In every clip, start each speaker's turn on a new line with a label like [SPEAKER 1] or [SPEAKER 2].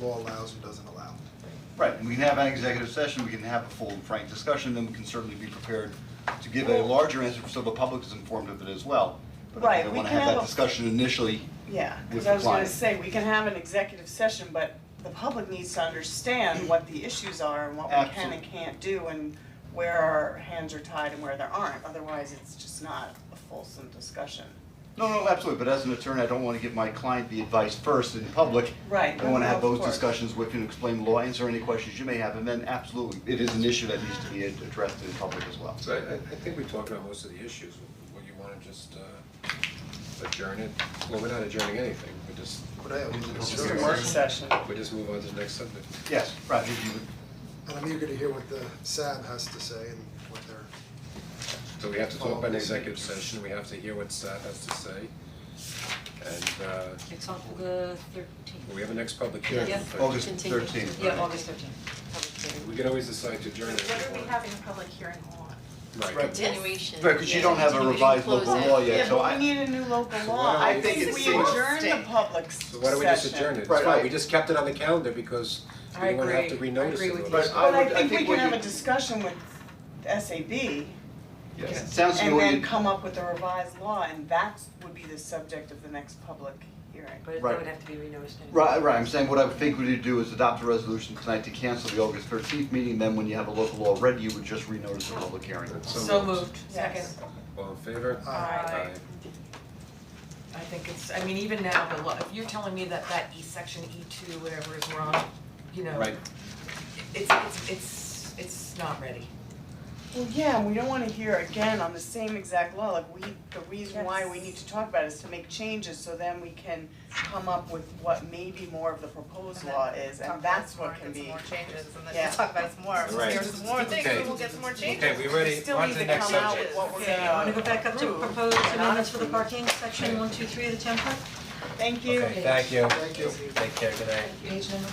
[SPEAKER 1] law allows and doesn't allow.
[SPEAKER 2] Right, and we can have an executive session, we can have a full and frank discussion, then we can certainly be prepared to give a larger answer so the public is informed of it as well. But I
[SPEAKER 3] Right,
[SPEAKER 2] think I
[SPEAKER 3] we
[SPEAKER 2] wanna
[SPEAKER 3] can
[SPEAKER 2] have
[SPEAKER 3] have
[SPEAKER 2] that
[SPEAKER 3] a-
[SPEAKER 2] discussion initially.
[SPEAKER 3] Yeah,
[SPEAKER 2] with
[SPEAKER 3] because
[SPEAKER 2] the
[SPEAKER 3] I was gonna
[SPEAKER 2] client.
[SPEAKER 3] say, we can have an executive session, but the public needs to understand what the issues are and what we can
[SPEAKER 2] Absolutely.
[SPEAKER 3] and can't do and where our hands are tied and where there aren't, otherwise it's just not a fulsome discussion.
[SPEAKER 2] No, no, absolutely, but as an attorney, I don't wanna give my client the advice first in public.
[SPEAKER 3] Right,
[SPEAKER 2] I wanna have
[SPEAKER 3] of
[SPEAKER 2] those
[SPEAKER 3] course.
[SPEAKER 2] discussions with you, explain the law, answer any questions you may have, and then absolutely, it is an issue that needs to be addressed in public as well.
[SPEAKER 4] So I, I I think we talked about most of the issues, would you wanna just uh, adjourn it? Well, we're not adjourning anything, we just,
[SPEAKER 1] But I,
[SPEAKER 4] It's
[SPEAKER 3] Just
[SPEAKER 4] Sure.
[SPEAKER 3] a work session.
[SPEAKER 4] we just move on to the next subject.
[SPEAKER 2] Yes, Roger, you would.
[SPEAKER 1] and I'm eager to hear what the SAB has to say and what their,
[SPEAKER 4] So we have to talk about an executive session, we have to hear what Sat has to say. And uh,
[SPEAKER 5] It's on the thirteenth.
[SPEAKER 4] we have a next public hearing.
[SPEAKER 5] Yeah.
[SPEAKER 2] August 13th, right.
[SPEAKER 5] Yeah, August thirteenth, public
[SPEAKER 4] We
[SPEAKER 5] hearing.
[SPEAKER 4] can always decide to adjourn it. if
[SPEAKER 6] What are we
[SPEAKER 4] want.
[SPEAKER 6] having a public hearing on?
[SPEAKER 4] Right.
[SPEAKER 5] Continuation.
[SPEAKER 2] Right, 'cause you
[SPEAKER 5] yeah,
[SPEAKER 2] don't have a
[SPEAKER 5] continuation,
[SPEAKER 2] revised local
[SPEAKER 5] close
[SPEAKER 2] law
[SPEAKER 4] Oh,
[SPEAKER 5] out.
[SPEAKER 2] yet,
[SPEAKER 3] Yeah,
[SPEAKER 2] so
[SPEAKER 3] but
[SPEAKER 2] I-
[SPEAKER 3] we need a new local
[SPEAKER 4] So why
[SPEAKER 3] law,
[SPEAKER 4] don't
[SPEAKER 3] I
[SPEAKER 4] we
[SPEAKER 3] think
[SPEAKER 4] just
[SPEAKER 3] we
[SPEAKER 4] see-
[SPEAKER 3] adjourn the public s-
[SPEAKER 4] So why don't we just adjourn it? It's
[SPEAKER 2] Right.
[SPEAKER 4] fine, we just kept it on the calendar because we
[SPEAKER 5] I
[SPEAKER 4] don't wanna have to
[SPEAKER 5] agree.
[SPEAKER 4] renotice it.
[SPEAKER 5] I agree with
[SPEAKER 4] all this
[SPEAKER 5] you.
[SPEAKER 2] But
[SPEAKER 4] stuff.
[SPEAKER 2] I
[SPEAKER 3] But I
[SPEAKER 2] would- I
[SPEAKER 3] think we
[SPEAKER 2] think
[SPEAKER 3] can
[SPEAKER 2] what
[SPEAKER 3] have a
[SPEAKER 2] you-
[SPEAKER 3] discussion with SAB
[SPEAKER 2] Yes, it sounds to me
[SPEAKER 3] and
[SPEAKER 2] what you.
[SPEAKER 3] then come up with a revised law and that would be the subject of the next public hearing.
[SPEAKER 5] But it
[SPEAKER 2] Right.
[SPEAKER 5] would have to be renoticed anyway.
[SPEAKER 2] Right, right, I'm saying what I would think we need to do is adopt a resolution tonight to cancel the August thirteenth meeting, then when you have a local law ready, you would just renotice the public hearing.
[SPEAKER 5] So moved, second.
[SPEAKER 3] Yes.
[SPEAKER 4] All in favor?
[SPEAKER 5] Aye. I think it's, I mean, even now, the law, if you're telling me that that E section, E two, whatever is wrong, you know,
[SPEAKER 4] Right,
[SPEAKER 5] it's, it's, it's, it's not ready.
[SPEAKER 3] Well, yeah, and we don't wanna hear again on the same exact law, like we, the reason why we
[SPEAKER 6] Yes.
[SPEAKER 3] need to talk about it is to make changes, so then we can come up with what maybe more of the proposed law is, and that's what can be.
[SPEAKER 6] Talk about some more, get some more changes, and then
[SPEAKER 3] Yeah.
[SPEAKER 6] just talk about some more,
[SPEAKER 4] Right.
[SPEAKER 6] here's some more things,
[SPEAKER 4] Okay.
[SPEAKER 6] and we'll get some more changes.
[SPEAKER 4] okay, we ready, on to the next subject.
[SPEAKER 5] Okay, I wanna go back up to
[SPEAKER 3] approve.
[SPEAKER 5] proposed
[SPEAKER 3] Not
[SPEAKER 5] amendments for the
[SPEAKER 3] approve.
[SPEAKER 5] parking section one, two, three of the template,
[SPEAKER 3] Thank you.
[SPEAKER 4] Okay, thank you.
[SPEAKER 1] Thank you.
[SPEAKER 4] Take care, good night.
[SPEAKER 5] page number.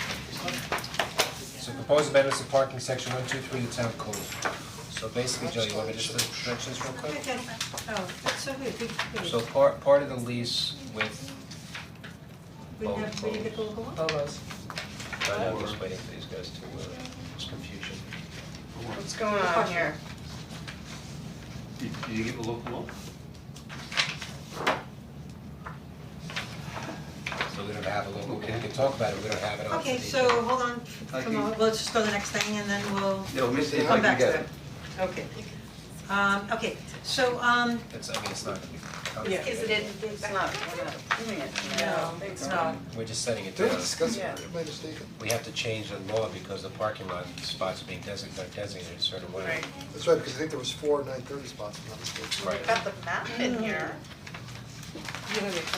[SPEAKER 4] So proposed amendments to parking section one, two, three of the town code. So basically, Joe, you want me just to stretch this real quick?
[SPEAKER 5] Okay, oh, that's so weird, we, we,
[SPEAKER 4] So part, part of the lease with,
[SPEAKER 5] we have, we
[SPEAKER 4] um,
[SPEAKER 5] get the local law?
[SPEAKER 4] I know, I'm just waiting for these guys to, uh, it's confusion.
[SPEAKER 3] What's going on here?
[SPEAKER 2] Did you give a local law?
[SPEAKER 4] So we don't have a local, we can talk about it, we don't have it on the.
[SPEAKER 5] Okay, so hold on,
[SPEAKER 2] I
[SPEAKER 5] from,
[SPEAKER 2] can-
[SPEAKER 5] let's just go to the next thing and then we'll
[SPEAKER 2] Yeah, let me see if I
[SPEAKER 5] come
[SPEAKER 2] can
[SPEAKER 5] back to
[SPEAKER 2] get
[SPEAKER 5] that.
[SPEAKER 2] it.
[SPEAKER 5] Okay. Um, okay, so, um,
[SPEAKER 4] It's, I mean, it's not gonna be
[SPEAKER 5] Yeah.
[SPEAKER 4] complicated.
[SPEAKER 6] Is it in?
[SPEAKER 3] It's not, we're not doing it.
[SPEAKER 5] no, it's not,
[SPEAKER 4] We're just setting it
[SPEAKER 1] Did we
[SPEAKER 4] down.
[SPEAKER 1] discuss
[SPEAKER 3] Yeah.
[SPEAKER 1] it, am I mistaken?
[SPEAKER 4] We have to change the law because the parking lot spots are being designated, designated a certain way.
[SPEAKER 3] Right.
[SPEAKER 1] That's right, because I think there was four nine thirty spots, if I'm not mistaken.
[SPEAKER 4] Right.
[SPEAKER 6] Got the map in
[SPEAKER 3] Mm.
[SPEAKER 6] here.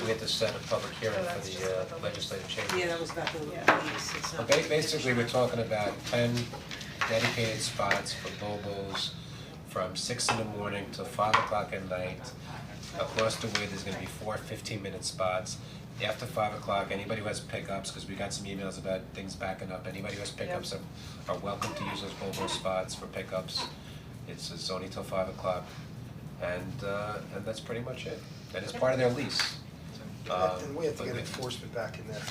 [SPEAKER 4] We had to set a public hearing
[SPEAKER 6] So
[SPEAKER 4] for
[SPEAKER 6] that's
[SPEAKER 4] the
[SPEAKER 6] just
[SPEAKER 4] uh,
[SPEAKER 6] about the-
[SPEAKER 4] legislative change.
[SPEAKER 5] yeah, that was about the lease,
[SPEAKER 3] Yeah.
[SPEAKER 5] it's
[SPEAKER 4] But
[SPEAKER 5] not.
[SPEAKER 4] ba- basically, we're talking about ten dedicated spots for Bobo's from six in the morning to five o'clock at night. Across the way, there's gonna be four fifteen-minute spots. After five o'clock, anybody who has pickups, cause we got some emails about things backing up, anybody who has pickups are are welcome to use those Bobo spots for pickups. It's it's only till five o'clock, and uh and that's pretty much it. And it's part of their lease. Um,
[SPEAKER 1] And we have to
[SPEAKER 4] but
[SPEAKER 1] get
[SPEAKER 4] we-
[SPEAKER 1] enforcement back in there,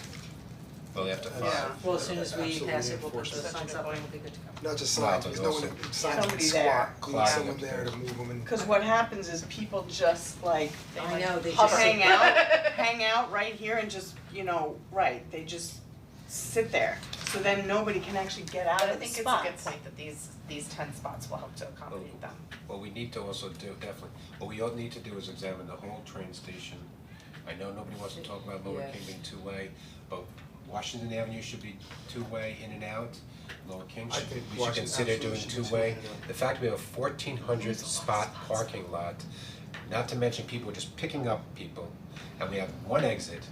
[SPEAKER 4] Well, after five.
[SPEAKER 3] Yeah.
[SPEAKER 5] Well, as soon as we
[SPEAKER 1] Absolutely
[SPEAKER 5] pass it, we'll put
[SPEAKER 1] enforce
[SPEAKER 5] those
[SPEAKER 1] it.
[SPEAKER 5] signs up and we'll be good to go.
[SPEAKER 1] not just
[SPEAKER 4] Wow,
[SPEAKER 1] signs,
[SPEAKER 4] but
[SPEAKER 1] because no one,
[SPEAKER 4] also-
[SPEAKER 1] signs can
[SPEAKER 3] Somebody there.
[SPEAKER 1] squat, we need
[SPEAKER 4] Clogging
[SPEAKER 1] someone
[SPEAKER 4] up
[SPEAKER 1] there
[SPEAKER 4] there.
[SPEAKER 1] to move them and.
[SPEAKER 3] Cause what happens is people just like, they
[SPEAKER 5] I
[SPEAKER 3] like
[SPEAKER 5] know, they
[SPEAKER 3] huff-
[SPEAKER 5] just sit-
[SPEAKER 3] hang out, hang out right here and just, you know, right, they just sit there. So then nobody can actually get out
[SPEAKER 6] I
[SPEAKER 3] of the
[SPEAKER 6] think it's
[SPEAKER 3] spots.
[SPEAKER 6] a good point that these, these ten spots will help to accommodate them.
[SPEAKER 4] What we need to also do, definitely, what we all need to do is examine the whole train station. I know nobody wants to talk about Lower
[SPEAKER 5] Yeah.
[SPEAKER 4] King being two-way, but Washington Avenue should be two-way in and out. Lower King
[SPEAKER 1] I
[SPEAKER 4] should,
[SPEAKER 1] think
[SPEAKER 4] we should
[SPEAKER 1] Washington
[SPEAKER 4] consider
[SPEAKER 1] absolutely
[SPEAKER 4] doing
[SPEAKER 1] should be
[SPEAKER 4] two-way.
[SPEAKER 1] two-way, yeah.
[SPEAKER 4] The fact we have a fourteen hundred spot parking lot, not to mention people just picking up people, and we have one exit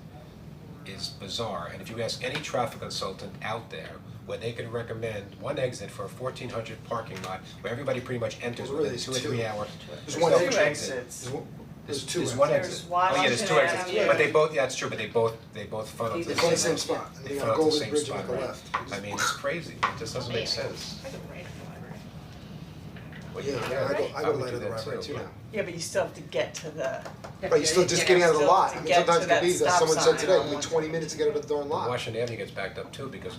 [SPEAKER 4] is bizarre, and if you ask any traffic consultant out there, where they could recommend one exit for a fourteen hundred parking lot, where everybody pretty much enters
[SPEAKER 1] Well, really,
[SPEAKER 4] within two or
[SPEAKER 1] it's two.
[SPEAKER 4] three hour,
[SPEAKER 1] There's
[SPEAKER 4] there's
[SPEAKER 1] one
[SPEAKER 4] no
[SPEAKER 1] exit.
[SPEAKER 4] exit.
[SPEAKER 3] exits.
[SPEAKER 1] There's one-
[SPEAKER 4] There's,
[SPEAKER 1] There's two
[SPEAKER 4] there's
[SPEAKER 1] exits.
[SPEAKER 4] one
[SPEAKER 3] There's
[SPEAKER 4] exit, oh
[SPEAKER 3] Washington
[SPEAKER 4] yeah, there's two
[SPEAKER 3] Avenue.
[SPEAKER 4] exits, but they both, yeah, that's true, but they both, they both funnel to
[SPEAKER 5] Lead
[SPEAKER 4] the
[SPEAKER 1] They
[SPEAKER 5] to
[SPEAKER 1] go in
[SPEAKER 4] same.
[SPEAKER 1] the same spot, and
[SPEAKER 4] They
[SPEAKER 1] then you got
[SPEAKER 4] funnel to
[SPEAKER 1] Golden
[SPEAKER 4] the same
[SPEAKER 1] Bridge on
[SPEAKER 4] spot,
[SPEAKER 1] the
[SPEAKER 4] right.
[SPEAKER 1] left.
[SPEAKER 4] I mean, it's crazy, it just doesn't make sense.
[SPEAKER 6] I could write a library.
[SPEAKER 4] Well,
[SPEAKER 1] Yeah, I
[SPEAKER 4] right.
[SPEAKER 1] go, I go
[SPEAKER 4] would do
[SPEAKER 1] light on the
[SPEAKER 4] that
[SPEAKER 1] right way too now.
[SPEAKER 3] Yeah, but you still have to get to the,
[SPEAKER 1] But you're still just getting out of the
[SPEAKER 3] Still
[SPEAKER 1] lot,
[SPEAKER 3] to
[SPEAKER 1] I mean,
[SPEAKER 3] get to
[SPEAKER 1] sometimes it
[SPEAKER 3] that
[SPEAKER 1] could be, that
[SPEAKER 3] stop
[SPEAKER 1] someone said
[SPEAKER 3] sign
[SPEAKER 1] today,
[SPEAKER 3] on
[SPEAKER 1] only
[SPEAKER 3] one
[SPEAKER 1] twenty minutes to get out of the darn lot.
[SPEAKER 4] Washington Avenue gets backed up too, because